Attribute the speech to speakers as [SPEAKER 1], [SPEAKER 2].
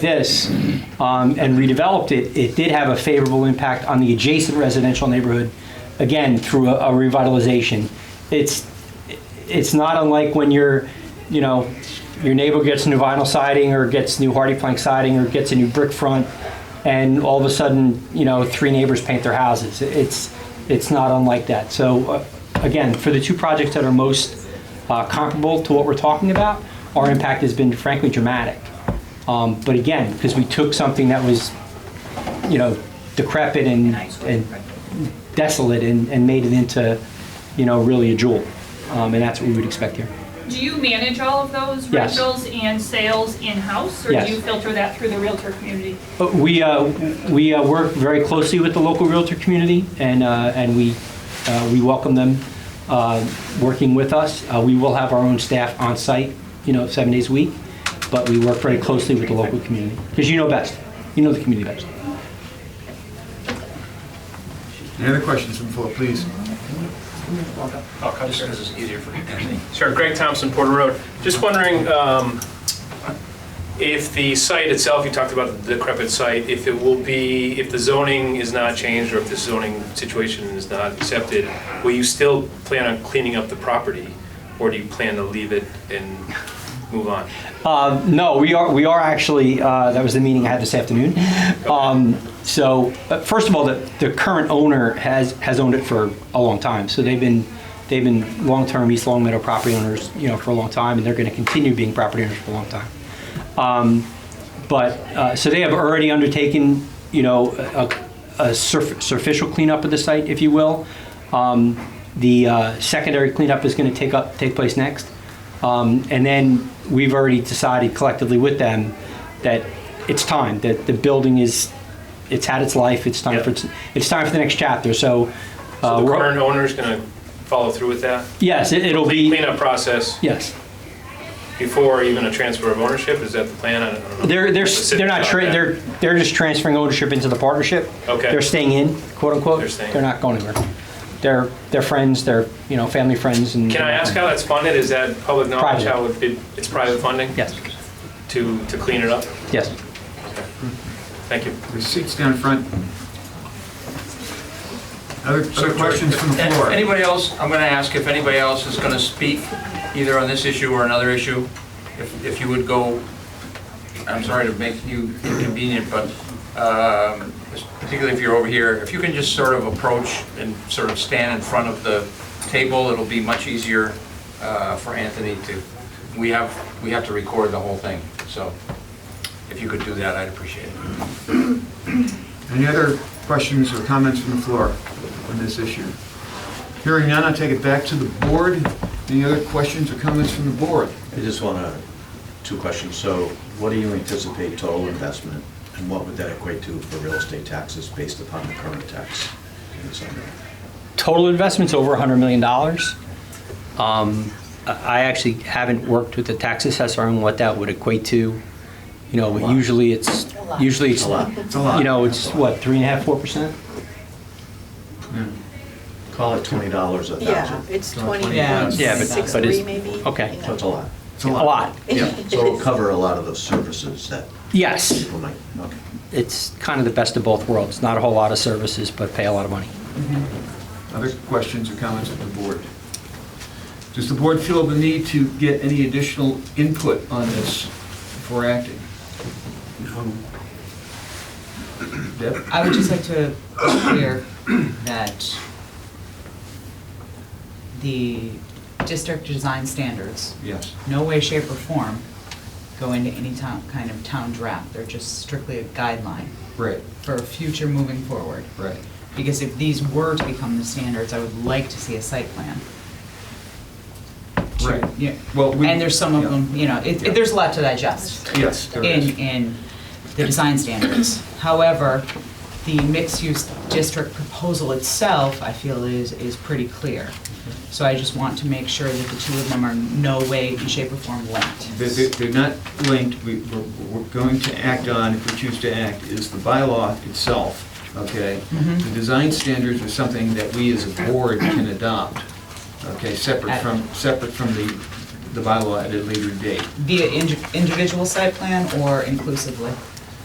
[SPEAKER 1] this um, and redeveloped it, it did have a favorable impact on the adjacent residential neighborhood, again, through a, a revitalization. It's, it's not unlike when you're, you know, your neighbor gets new vinyl siding or gets new hardy plank siding or gets a new brick front, and all of a sudden, you know, three neighbors paint their houses. It's, it's not unlike that. So, uh, again, for the two projects that are most uh, comparable to what we're talking about, our impact has been frankly dramatic. Um, But again, because we took something that was, you know, decrepit and, and desolate and, and made it into, you know, really a jewel. Um, and that's what we would expect here.
[SPEAKER 2] Do you manage all of those
[SPEAKER 1] Yes.
[SPEAKER 2] rentals and sales in-house? Or
[SPEAKER 1] Yes.
[SPEAKER 2] do you filter that through the Realtor community?
[SPEAKER 1] But we, uh, we uh, work very closely with the local Realtor community and, uh, and we, uh, we welcome them, uh, working with us. Uh, we will have our own staff on site, you know, seven days a week, but we work very closely with the local community. Because you know best, you know the community best.
[SPEAKER 3] Any other questions from the floor, please?
[SPEAKER 4] I'll cut just because it's easier for you. Sure, Greg Thompson, Porter Road. Just wondering um, if the site itself, you talked about the decrepit site, if it will be, if the zoning is not changed or if the zoning situation is not accepted, will you still plan on cleaning up the property? Or do you plan to leave it and move on?
[SPEAKER 1] Um, No, we are, we are actually, uh, that was the meeting I had this afternoon. Um, So, uh, first of all, the, the current owner has, has owned it for a long time. So they've been, they've been long-term East Long Meadow property owners, you know, for a long time, and they're going to continue being property owners for a long time. Um, But, uh, so they have already undertaken, you know, a a surf- superficial cleanup of the site, if you will. Um, The uh, secondary cleanup is going to take up, take place next. Um, And then we've already decided collectively with them that it's time, that the building is, it's had its life, it's time
[SPEAKER 4] Yeah.
[SPEAKER 1] for, its- it's time for the next chapter, so. uh,
[SPEAKER 4] So the
[SPEAKER 1] we're-
[SPEAKER 4] current owner's going to follow through with that?
[SPEAKER 1] Yes, it- it'll be,
[SPEAKER 4] Cleanup process
[SPEAKER 1] yes.
[SPEAKER 4] before even a transfer of ownership, is that the plan? I don't know.
[SPEAKER 1] They're, they're,
[SPEAKER 4] Specifics
[SPEAKER 1] they're not,
[SPEAKER 4] about
[SPEAKER 1] tra-
[SPEAKER 4] that.
[SPEAKER 1] they're, they're just transferring ownership into the partnership.
[SPEAKER 4] Okay.
[SPEAKER 1] They're staying in, quote unquote.
[SPEAKER 4] They're staying.
[SPEAKER 1] They're not going anywhere. They're, they're friends, they're, you know, family friends and.
[SPEAKER 4] Can I ask how that's funded? Is that public knowledge,
[SPEAKER 1] Private.
[SPEAKER 4] how it- it- it's private funding?
[SPEAKER 1] Yes,
[SPEAKER 4] To, to clean it up?
[SPEAKER 1] yes.
[SPEAKER 4] Thank you.
[SPEAKER 3] There's seats down front. Other other questions from the
[SPEAKER 5] And
[SPEAKER 3] floor?
[SPEAKER 5] Anybody else, I'm going to ask if anybody else is going to speak either on this issue or another issue. If if you would go, I'm sorry to make you inconvenient, but um, particularly if you're over here, if you can just sort of approach and sort of stand in front of the table, it'll be much easier uh, for Anthony to, we have, we have to record the whole thing. So if you could do that, I'd appreciate it.
[SPEAKER 3] Any other questions or comments from the floor on this issue? Hearing none, I'll take it back to the board. Any other questions or comments from the board?
[SPEAKER 6] I just want to, two questions. So what do you anticipate total investment, and what would that equate to for real estate taxes based upon the current tax? in the zone?
[SPEAKER 1] Total investment's over $100 million. Um, I I actually haven't worked with the tax assessor on what that would equate to. You know, but
[SPEAKER 6] lot.
[SPEAKER 1] usually it's, usually it's,
[SPEAKER 6] A lot.
[SPEAKER 3] It's a lot.
[SPEAKER 1] you know, it's what, three and a half, four percent?
[SPEAKER 6] Call it $20 a
[SPEAKER 7] Yeah,
[SPEAKER 6] thousand.
[SPEAKER 7] it's
[SPEAKER 3] So
[SPEAKER 7] 20,
[SPEAKER 3] 20 bucks.
[SPEAKER 1] Yeah, but- but it's-
[SPEAKER 7] 63 maybe.
[SPEAKER 1] okay.
[SPEAKER 7] you know.
[SPEAKER 6] That's a lot.
[SPEAKER 3] It's
[SPEAKER 1] A lot.
[SPEAKER 6] Yeah, so it'll cover a lot of those services that
[SPEAKER 1] Yes.
[SPEAKER 6] people might, okay.
[SPEAKER 1] It's kind of the best of both worlds. Not a whole lot of services, but pay a lot of money.
[SPEAKER 3] Other questions or comments from the board? Does the board feel the need to get any additional input on this before acting? No. Deb?
[SPEAKER 8] I would just like to be clear that the district design standards,
[SPEAKER 3] Yes.
[SPEAKER 8] no way, shape, or form go into any town, kind of town draft. They're just strictly a guideline
[SPEAKER 3] Right,
[SPEAKER 8] for future moving forward.
[SPEAKER 3] right.
[SPEAKER 8] Because if these were to become the standards, I would like to see a site plan. to-
[SPEAKER 3] Right.
[SPEAKER 8] Yeah,
[SPEAKER 3] Well, we-
[SPEAKER 8] and there's some of
[SPEAKER 3] yeah.
[SPEAKER 8] them, you know, it,
[SPEAKER 3] Yeah.
[SPEAKER 8] it- there's a lot to digest
[SPEAKER 3] Yes, there
[SPEAKER 8] in,
[SPEAKER 3] is.
[SPEAKER 8] in the design standards. However, the mixed-use district proposal itself, I feel, is, is pretty clear. So I just want to make sure that the two of them are no way, shape, or form linked.
[SPEAKER 3] They're- They're they're not linked, we, we're- we're going to act on, if we choose to act, is the bylaw itself, okay?
[SPEAKER 8] Mm-hmm.
[SPEAKER 3] The design standards are something that we as a board can adopt, okay, separate from, separate from the, the bylaw at a later date.
[SPEAKER 8] Via indi- individual site plan or inclusively?